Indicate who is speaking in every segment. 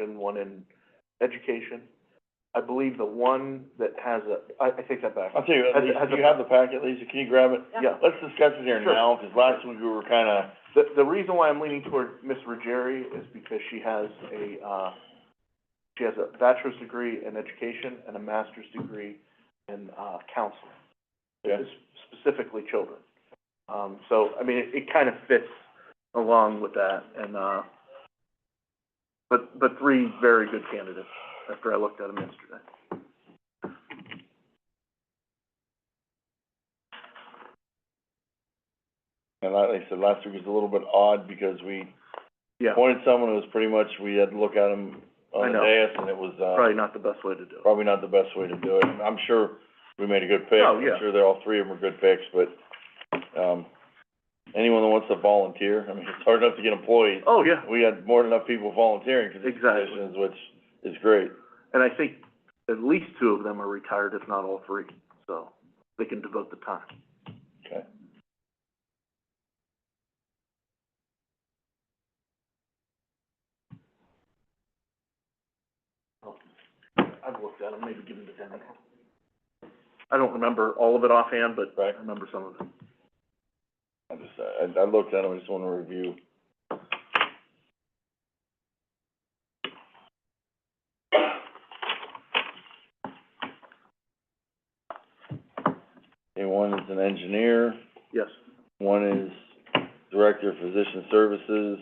Speaker 1: and one in education. I believe the one that has a, I, I take that back.
Speaker 2: I'll tell you, what,
Speaker 1: Has-
Speaker 2: Lisa,
Speaker 1: has
Speaker 2: do
Speaker 1: a-
Speaker 2: you have the packet, Lisa, can you grab it?
Speaker 1: Yeah,
Speaker 2: Let's discuss it here
Speaker 1: Sure.
Speaker 2: now, because last week we were kinda,
Speaker 1: the, the reason why I'm leaning toward Ms. Ruggieri is because she has a, uh, she has a bachelor's degree in education and a master's degree in, uh, counseling.
Speaker 2: yeah,
Speaker 1: s- specifically children. Um, so, I mean, it, it kind of fits along with that, and, uh, but, but three very good candidates after I looked at them yesterday.
Speaker 2: and like I said, last week was a little bit odd, because we
Speaker 1: Yeah,
Speaker 2: appointed someone who was pretty much, we had to look at him
Speaker 1: I
Speaker 2: on the
Speaker 1: know.
Speaker 2: dais, and it was, uh,
Speaker 1: probably not the best way to do it.
Speaker 2: probably not the best way to do it, I'm sure we made a good pick.
Speaker 1: Oh, yeah.
Speaker 2: I'm sure they're, all three of them are good picks, but, um, anyone that wants to volunteer, I mean, it's hard enough to get employees.
Speaker 1: Oh, yeah,
Speaker 2: We had more than enough people volunteering for these
Speaker 1: Exactly.
Speaker 2: positions, which is great.
Speaker 1: and I think at least two of them are retired, if not all three, so they can devote the time.
Speaker 2: Okay.
Speaker 1: I've looked at them, maybe give them to Danny. I don't remember all of it offhand, but I
Speaker 2: Right.
Speaker 1: remember some of it.
Speaker 2: I just, I, I looked at them, I just wanna review. Okay, one is an engineer,
Speaker 1: Yes,
Speaker 2: one is director of physician services,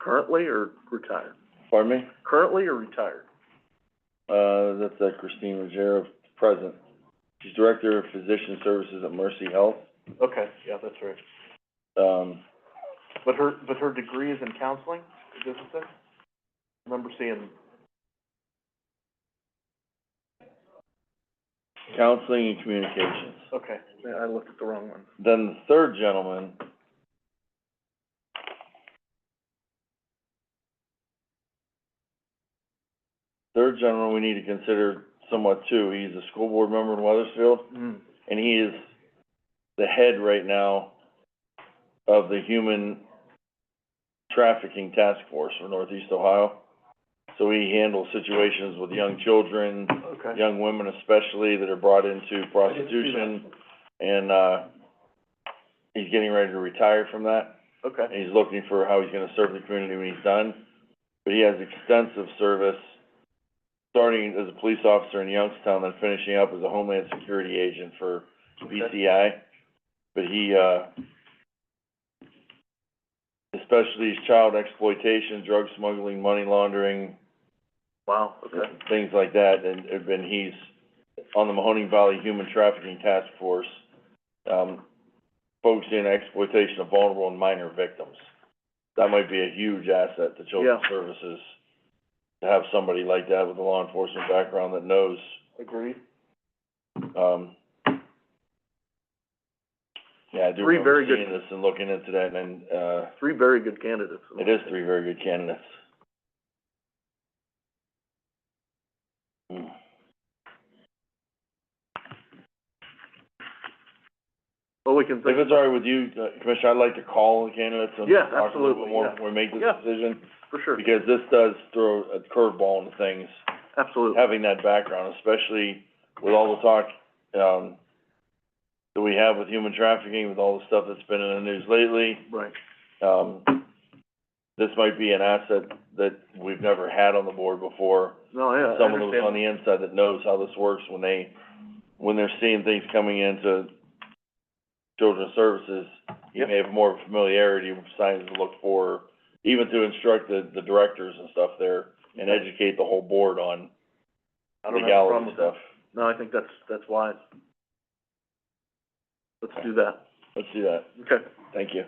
Speaker 1: currently or retired?
Speaker 2: pardon me?
Speaker 1: Currently or retired?
Speaker 2: Uh, that's uh, Christine Rogero, present. She's director of physician services at Mercy Health.
Speaker 1: Okay, yeah, that's right.
Speaker 2: Um,
Speaker 1: But her, but her degree is in counseling, it doesn't say? Remember seeing,
Speaker 2: counseling and communications.
Speaker 1: okay, yeah, I looked at the wrong one.
Speaker 2: Then the third gentleman. Third gentleman we need to consider somewhat too. He's a school board member in Weathersfield,
Speaker 1: Mm,
Speaker 2: and he is the head right now of the Human Trafficking Task Force for Northeast Ohio. So he handles situations with young children,
Speaker 1: okay.
Speaker 2: young women especially that are brought into prostitution. And, uh, he's getting ready to retire from that, and
Speaker 1: Okay,
Speaker 2: he's looking for how he's gonna serve the community when he's done. But he has extensive service, starting as a police officer in Youngstown, then finishing up as a Homeland Security agent for BCI. But he, uh, especially his child exploitation, drug smuggling, money laundering,
Speaker 1: wow, okay,
Speaker 2: things like that, and, and then he's on the Mahoning Valley Human Trafficking Task Force, um, focusing on exploitation of vulnerable and minor victims. That might be a huge asset to Children's
Speaker 1: Yeah.
Speaker 2: Services, to have somebody like that with a law enforcement background that knows,
Speaker 1: agreed.
Speaker 2: um, yeah, I do
Speaker 1: Three very
Speaker 2: remember
Speaker 1: good-
Speaker 2: seeing this and looking into that, and, uh,
Speaker 1: Three very good candidates.
Speaker 2: it is three very good candidates. Hmm.
Speaker 1: Well, we can
Speaker 2: If
Speaker 1: think,
Speaker 2: it's all right with you, uh, Commissioner, I'd like to call the candidates and
Speaker 1: Yeah,
Speaker 2: talk a little
Speaker 1: absolutely,
Speaker 2: bit more
Speaker 1: yeah.
Speaker 2: before we make this
Speaker 1: Yeah.
Speaker 2: decision.
Speaker 1: for sure,
Speaker 2: Because this does throw a curveball into things,
Speaker 1: absolutely.
Speaker 2: having that background, especially with all the talk, um, that we have with human trafficking, with all the stuff that's been in the news lately.
Speaker 1: Right,
Speaker 2: Um, this might be an asset that we've never had on the board before.
Speaker 1: no, yeah, I
Speaker 2: Someone who's on
Speaker 1: understand.
Speaker 2: the inside that knows how this works when they, when they're seeing things coming into children's services, you may have more familiarity with signs to look for, even to instruct the, the directors and stuff there and educate the whole board on
Speaker 1: I don't have a problem
Speaker 2: legality
Speaker 1: with that.
Speaker 2: stuff.
Speaker 1: No, I think that's, that's wise. Let's do that,
Speaker 2: Let's do that.
Speaker 1: okay.
Speaker 2: Thank you.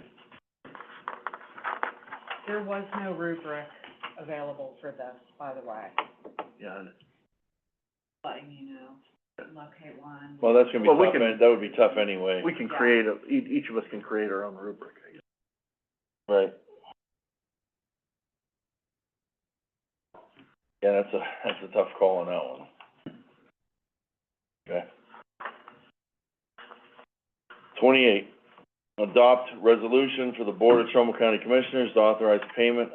Speaker 3: There was no rubric available for this, by the way,
Speaker 1: Yeah, and-
Speaker 3: letting you know, locate one.
Speaker 2: Well, that's gonna be
Speaker 1: Well, we
Speaker 2: tough,
Speaker 1: can-
Speaker 2: and that would be tough anyway,
Speaker 1: we can create a, e- each of us can create our own rubric, I guess.
Speaker 2: right? Yeah, that's a, that's a tough call on that one. Okay. Twenty-eight. Adopt resolution for the Board of Trumbull County Commissioners to authorize payment